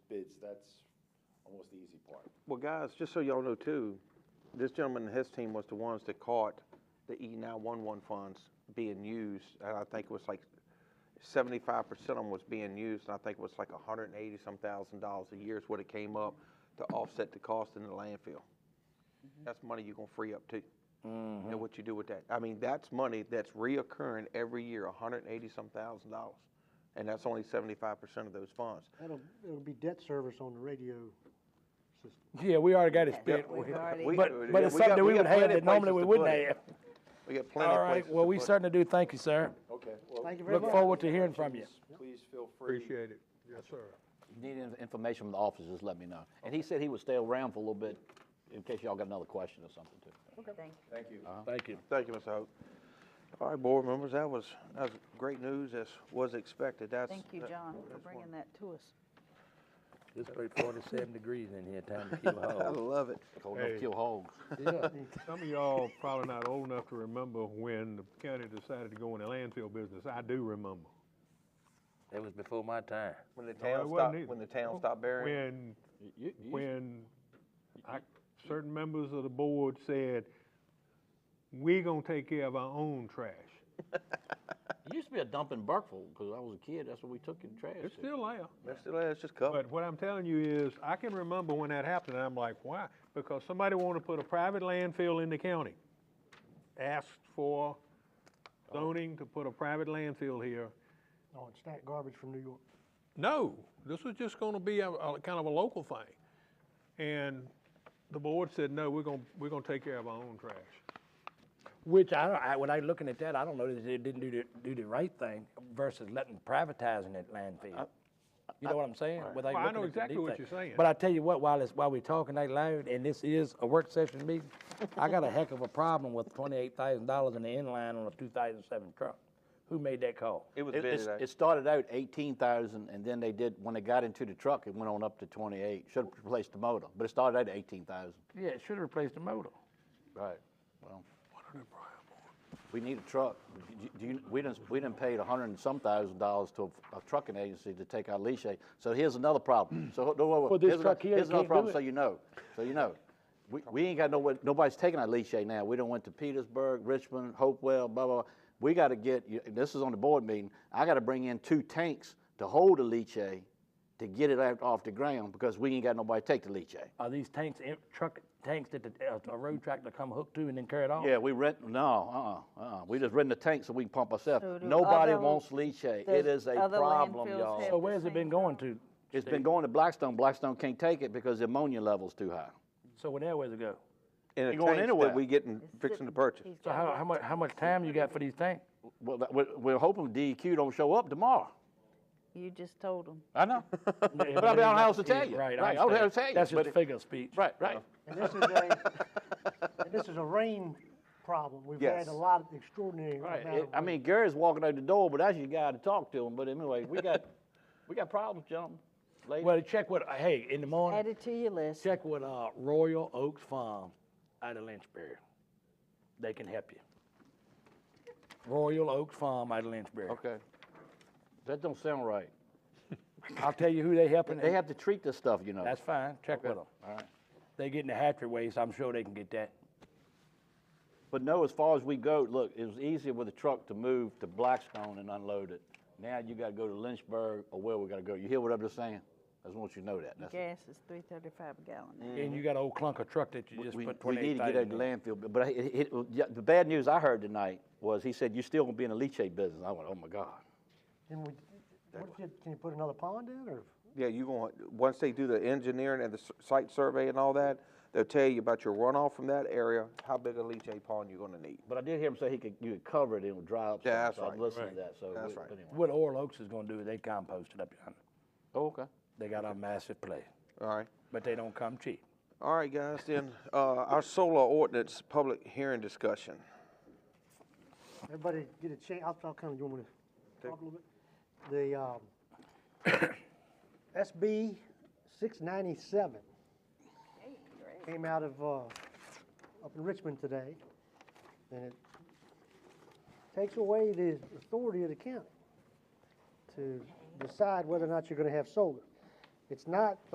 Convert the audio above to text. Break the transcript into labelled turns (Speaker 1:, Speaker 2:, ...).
Speaker 1: it's, that's almost the easy part.
Speaker 2: Well, guys, just so y'all know too, this gentleman and his team was the ones that caught the E nine one one funds being used, and I think it was like seventy-five percent of them was being used, and I think it was like hundred and eighty some thousand dollars a year is what it came up to offset the cost in the landfill. That's money you're gonna free up too. And what you do with that, I mean, that's money that's reoccurring every year, hundred and eighty some thousand dollars, and that's only seventy-five percent of those funds.
Speaker 3: That'll, it'll be debt service on the radio system.
Speaker 4: Yeah, we already got it spent.
Speaker 5: We've already-
Speaker 2: We-
Speaker 4: But, but it's
Speaker 2: we got-
Speaker 4: something that we
Speaker 2: we got
Speaker 4: would have
Speaker 2: plenty
Speaker 4: that
Speaker 2: of places
Speaker 4: normally we
Speaker 2: to
Speaker 4: wouldn't
Speaker 2: put it.
Speaker 4: have.
Speaker 2: We got plenty
Speaker 4: All
Speaker 2: of
Speaker 4: right,
Speaker 2: places
Speaker 4: well,
Speaker 2: to
Speaker 4: we
Speaker 2: put it.
Speaker 4: certainly do thank you, sir.
Speaker 1: Okay, well.
Speaker 3: Thank you very
Speaker 4: Look
Speaker 3: much.
Speaker 4: forward to hearing from you.
Speaker 1: Please feel free.
Speaker 6: Appreciate it. Yes, sir.
Speaker 5: Need in- information from the office, just let me know. And he said he would stay around for a little bit in case y'all got another question or something too.
Speaker 7: Thank you.
Speaker 1: Thank you.
Speaker 4: Thank you.
Speaker 2: Thank you, Mr. Hope. All right, board members, that was, that was great news, as was expected, that's.
Speaker 7: Thank you,
Speaker 2: that-
Speaker 7: John, for
Speaker 2: that's
Speaker 7: bringing
Speaker 2: one-
Speaker 7: that to us.
Speaker 8: It's about forty-seven degrees in here, time to kill
Speaker 2: I
Speaker 8: hogs.
Speaker 2: love it.
Speaker 5: Cold enough to
Speaker 6: Hey.
Speaker 5: kill hogs.
Speaker 6: Some of y'all probably not old enough to remember when the county decided to go in the landfill business. I do remember.
Speaker 8: That was before my time.
Speaker 2: When the
Speaker 6: No, it
Speaker 2: town
Speaker 6: wasn't
Speaker 2: stopped,
Speaker 6: either.
Speaker 2: when the town stopped burying.
Speaker 6: When, when I, certain members of the board said, we gonna take care of our own trash.
Speaker 5: It used to be a dump in Burkeville, because I was a kid, that's what we took in trash.
Speaker 6: It's
Speaker 5: to.
Speaker 6: still there.
Speaker 2: Mr. Lay, it's just covered.
Speaker 6: But what I'm telling you is, I can remember when that happened, and I'm like, why? Because somebody wanted to put a private landfill in the county. Asked for zoning to put a private landfill here.
Speaker 3: Oh, it's not garbage from New York.
Speaker 6: No, this was just gonna be a, a kind of a local thing. And the board said, no, we're gonna, we're gonna take care of our own trash.
Speaker 4: Which I, don't- I, when I looking at that, I don't know that they didn't do the, do the right thing versus letting privatizing that landfill. You know what I'm saying? Without
Speaker 6: Well, I
Speaker 4: looking
Speaker 6: know
Speaker 4: at the
Speaker 6: exactly what
Speaker 4: detail.
Speaker 6: you're saying.
Speaker 4: But I tell you what, while it's, while we're talking that loud, and this is a work session meeting, I got a heck of a problem with twenty-eight thousand dollars in the inline on a two thousand seven truck. Who made that call?
Speaker 2: It was
Speaker 5: It,
Speaker 2: bid
Speaker 5: it's-
Speaker 2: today.
Speaker 5: it started out eighteen thousand, and then they did, when they got into the truck, it went on up to twenty-eight, should have replaced the motor, but it started out at eighteen thousand.
Speaker 4: Yeah, it should have replaced the motor.
Speaker 5: Right, well. We need a truck, Do you- do you, we done, we done paid a hundred and some thousand dollars to a, a trucking agency to take our leash, aid. so here's another problem, so, no, wait, wait,
Speaker 4: Well, this
Speaker 5: here's another-
Speaker 4: truck here,
Speaker 5: Here's
Speaker 4: you
Speaker 5: another
Speaker 4: can't do
Speaker 5: problem,
Speaker 4: it.
Speaker 5: so you know, so you know. We, we ain't got no, nobody's taking our leash aid now, we done went to Petersburg, Richmond, Hopewell, blah, blah, blah. We gotta get, you- this is on the board meeting, I gotta bring in two tanks to hold the leash aid to get it out off the ground, because we ain't got nobody to take the leash aid.
Speaker 4: Are these tanks, em- truck tanks that the, uh, a road tractor come hook to and then carry it off?
Speaker 5: Yeah, we rent, no, uh-uh, uh-uh. We just rent the tank so we can pump
Speaker 7: So
Speaker 5: ourselves.
Speaker 7: do
Speaker 5: Nobody
Speaker 7: other-
Speaker 5: wants leachate. It
Speaker 7: does
Speaker 5: is a
Speaker 7: other
Speaker 5: problem,
Speaker 7: landfills
Speaker 4: So
Speaker 5: y'all.
Speaker 7: have-
Speaker 4: where's it been going to?
Speaker 5: It's been going to Blackstone. Blackstone can't take it because the ammonia level's too high.
Speaker 4: So where that way to go?
Speaker 2: In a
Speaker 5: Ain't going
Speaker 2: tank
Speaker 5: anywhere.
Speaker 2: that we getting,
Speaker 7: It's
Speaker 2: fixing
Speaker 7: sitting-
Speaker 2: to purchase.
Speaker 7: he's
Speaker 4: So
Speaker 7: got
Speaker 4: how,
Speaker 7: it.
Speaker 4: how much, how much time you got for these tanks?
Speaker 5: Well, that- we're, we're hoping DEQ don't show up tomorrow.
Speaker 7: You just told him.
Speaker 5: I know. But
Speaker 4: But
Speaker 5: I don't know how else to tell you.
Speaker 4: Right,
Speaker 5: I
Speaker 4: I
Speaker 5: don't know how to
Speaker 4: understand.
Speaker 5: tell you.
Speaker 4: That's
Speaker 5: but
Speaker 4: just a
Speaker 5: it-
Speaker 4: figure of speech.
Speaker 5: Right, right.
Speaker 3: And this is a, and this is a rain problem. We've had
Speaker 2: Yes.
Speaker 3: a lot of extraordinary
Speaker 5: Right.
Speaker 3: amount
Speaker 5: It-
Speaker 3: of
Speaker 5: I
Speaker 3: rain.
Speaker 5: mean, Gary's walking out the door, but that's your guy to talk to him. But anyway, we got, we got problems, gentlemen. Ladies.
Speaker 4: Well, check what, hey, in the
Speaker 7: Add
Speaker 4: morning,
Speaker 7: it to your list.
Speaker 4: check with uh, Royal Oaks Farm out of Lynchburg. They can help you. Royal Oaks Farm out of Lynchburg.
Speaker 5: Okay. That don't sound right.
Speaker 4: I'll tell you who they helping.
Speaker 5: They have to treat this stuff, you know.
Speaker 4: That's fine, check with them.
Speaker 5: All right.
Speaker 4: They getting the hatchery waste, I'm sure they can get that.
Speaker 5: But no, as far as we go, look, it was easier with a truck to move to Blackstone and unload it. Now you gotta go to Lynchburg or where we gotta go. You hear what I'm just saying? I just want you to know that. That's-
Speaker 7: Gas is three thirty-five a gallon now.
Speaker 4: And you got an old clunker truck that you just
Speaker 5: Mm-hmm. We,
Speaker 4: put
Speaker 5: we need
Speaker 4: twenty-eight
Speaker 5: to get out of
Speaker 4: thousand
Speaker 5: the
Speaker 4: in.
Speaker 5: landfill, but- but it- it- it- yeah, the bad news I heard tonight was he said, you're still gonna be in the leachate business. I went, oh my God.
Speaker 3: And we, what did, can you put another pond in or?
Speaker 2: Yeah, you going, once they do the engineering and the s- site survey and all that, they'll tell you about your runoff from that area, how big a leachate pond you're gonna need.
Speaker 5: But I did hear him say he could, you could cover it and it would dry up.
Speaker 2: Yeah,
Speaker 5: some,
Speaker 2: that's
Speaker 5: so I
Speaker 2: right.
Speaker 5: listened to that, so.
Speaker 2: That's
Speaker 5: we-
Speaker 2: right.
Speaker 5: but anyway.
Speaker 4: What Oral Oaks is gonna do is they compost it up yonder.
Speaker 5: Oh, okay.
Speaker 4: They got a massive place,
Speaker 2: All right.
Speaker 4: but they don't come cheap.
Speaker 2: All right, guys, then, uh, our solar ordinance public hearing discussion.
Speaker 3: Everybody get a chance, I'll, I'll come, you want me to talk a little bit? The, um, SB six ninety-seven came out of, uh, up in Richmond today, and it takes away the authority of the county to decide whether or not you're gonna have solar. It's not